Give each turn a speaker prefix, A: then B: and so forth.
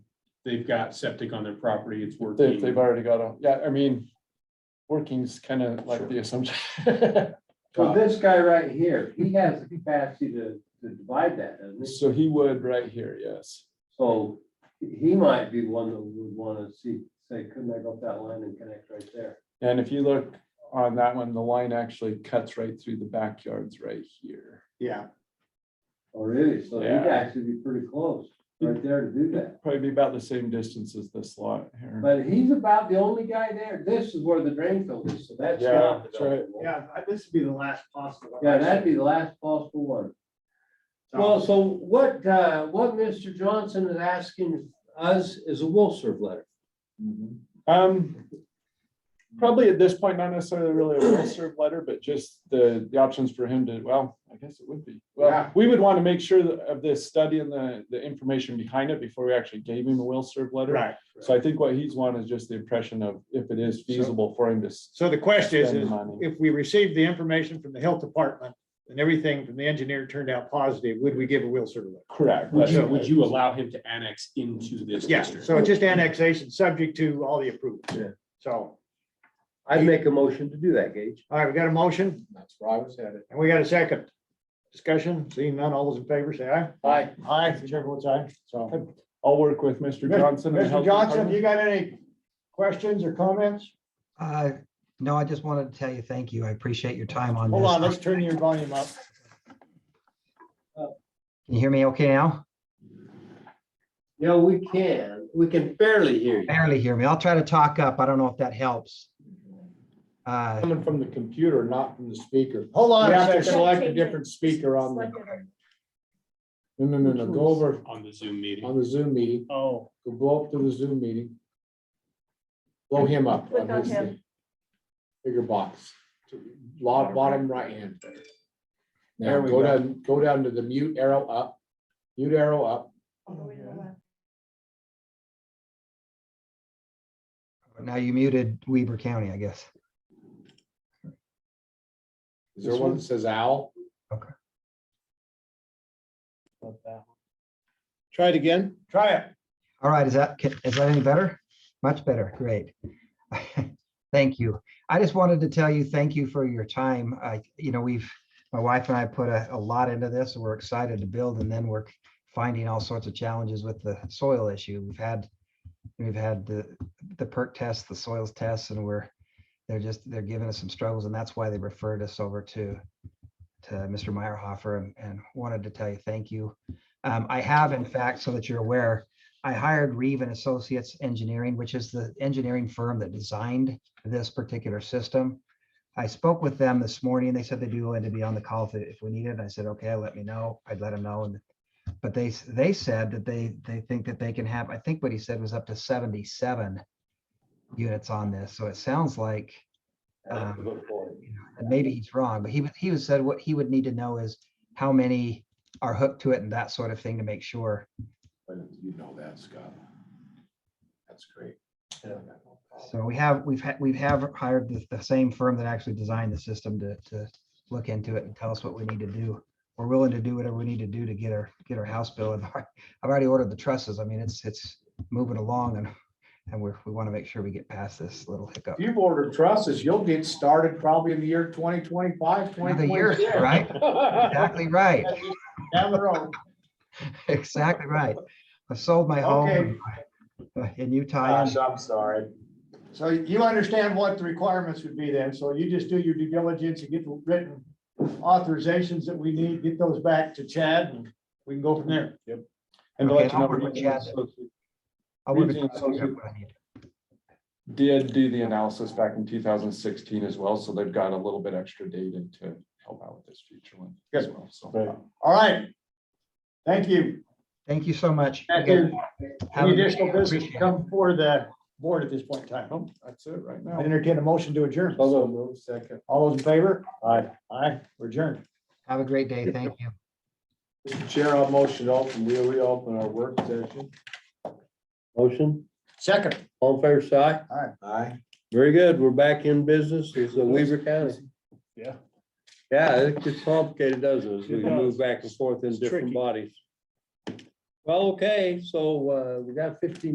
A: they've got septic on their property, it's
B: They've, they've
A: working.
B: already got a, yeah, I mean, working's kind of like the assumption.
C: So this guy right here, he has the capacity to, to divide that, doesn't he?
B: So he would right here, yes.
C: So he might be one that would wanna see, say, couldn't I go up that line and connect right there?
B: And if you look on that one, the line actually cuts right through the backyards right here.
A: Yeah,
C: Oh, really? So he'd
B: Yeah. Hmm.
C: actually be pretty close, right there to do that.
B: Probably be about the same distance as this lot here.
C: But he's about the only guy there. This is where the drain field is, so that's
B: Yeah,
C: not.
B: that's right.
C: developable.
D: Yeah, I- this would be the last possible. one.
C: Yeah, that'd be the last possible one.
D: So,
C: Well, so what, uh, what Mr. Johnson is asking us is a will serve letter.
D: mm-hmm.
B: Um, probably at this point, not necessarily really a will serve letter, but just the, the options for him to, well, I guess it would be. Well,
D: Yeah.
B: we would want to make sure that- of this study and the, the information behind it before we actually gave him a will serve letter.
D: Right.
B: So I think what he's wanting is just the impression of if it is feasible for him to. s-
D: So the question is,
B: Spend
D: is
B: money.
D: if we received the information from the health department and everything from the engineer turned out positive, would we give a will survey?
B: Correct.
A: would you,
D: So-
A: would you allow him to annex into this
D: Yeah,
A: district?
D: so it's just annexation, subject to all the approvals.
E: Yeah.
D: So,
C: I'd make a motion to do that, Gage.
D: all right, we got a motion
E: That's where I was headed.
D: and we got a second. Discussion, seeing none, all those in favor, say aye.
C: Aye.
D: Aye, whichever votes aye.
B: So I'll work with Mr. Johnson. and the
D: Mr.
B: health
D: Johnson,
B: department.
D: you got any questions or comments?
F: Uh, No, I just wanted to tell you, thank you. I appreciate your time on
D: Hold on,
F: this.
D: let's turn your volume up.
F: Can you hear me okay now?
C: Yeah, we can. We can barely hear you.
F: Barely hear me. I'll try to talk up. I don't know if that helps. Uh,
B: Coming from the computer, not from the speaker.
D: Hold
B: We
D: on a
B: have to
D: second.
B: select a different speaker on the, no, no, no, no, go over
A: On the Zoom meeting.
B: on the Zoom meeting,
D: Oh.
B: go blow up to the Zoom meeting. Blow him up.
G: Click on
B: his
G: him.
B: thing. Bigger box, log bottom right hand. Now,
C: There we
B: go
C: go.
B: down, go down to the mute arrow up, mute arrow up, Mm-hmm.
F: Now you muted Weber County, I guess.
B: is there one that says owl?
D: Try it again. Try it.
F: All right, is that, ca- is that any better? Much better, great. Thank you. I just wanted to tell you, thank you for your time. I, you know, we've, my wife and I put a, a lot into this. We're excited to build and then we're finding all sorts of challenges with the soil issue. We've had, we've had the, the perk tests, the soils tests, and we're, they're just, they're giving us some struggles and that's why they referred us over to, to Mr. Meyerhofer and, and wanted to tell you, thank you. Um, I have in fact, so that you're aware, I hired Reeve and Associates Engineering, which is the engineering firm that designed this particular system. I spoke with them this morning. They said they'd be willing to be on the call if, if we needed. I said, okay, let me know. I'd let them know. And but they, s- they said that they, they think that they can have, I think what he said was up to seventy-seven units on this. So it sounds like um, you know, and maybe he's wrong, but he, was- he was said what he would need to know is how many are hooked to it and that sort of thing to make sure.
B: You know that, Scott. That's great.
F: So we have, we've had, we've have hired the, the same firm that actually designed the system to, to look into it and tell us what we need to do. We're willing to do whatever we need to do to get our, get our house bill. And I've already ordered the trusses. I mean, it's, it's moving along and, and we're, we want to make sure we get past this little hiccup.
E: If you've ordered trusses, you'll get started probably in the year 2025,
F: Another year,
E: 2026.
F: right? Exactly right.
D: Down the road.
F: Exactly right. I sold my home in
D: Uh,
F: Utah.
E: Gosh, I'm sorry.
D: So you understand what the requirements would be then, so you just do your due diligence and get the written authorizations that we need, get those back to Chad, and we can go from there.
B: And to
F: Okay,
B: let you
F: I'll
B: know,
F: work with
B: Reeve and
F: Chad.
B: Associates
F: I would-
B: Reeve and Associates did do the analysis back in two thousand sixteen as well, so they've got a little bit extra data to help out with this future one as well, so.
D: All right. Thank you.
F: Thank you so much.
D: Any
F: Have a- Oh.
D: additional business
F: appreciate it.
D: come for the board at this point in time?
B: Well, oh, That's it right now.
D: I entertain a motion to adjourn.
B: Although, move second.
D: All those in favor? Aye. Aye, we're adjourned.
F: Have a great day. Thank you.
E: Mr. Chair, I'll motion open, we'll reopen our work session.
C: Motion,
D: Second.
C: all in favor, say aye.
E: Aye.
C: Very good. We're back in business. It's a Weaver County.
D: Yeah.
C: Yeah, it gets complicated, doesn't it? as We
D: It does.
C: move back and forth in
D: It's
C: different
D: tricky.
C: bodies. Well, okay, so uh, we got fifteen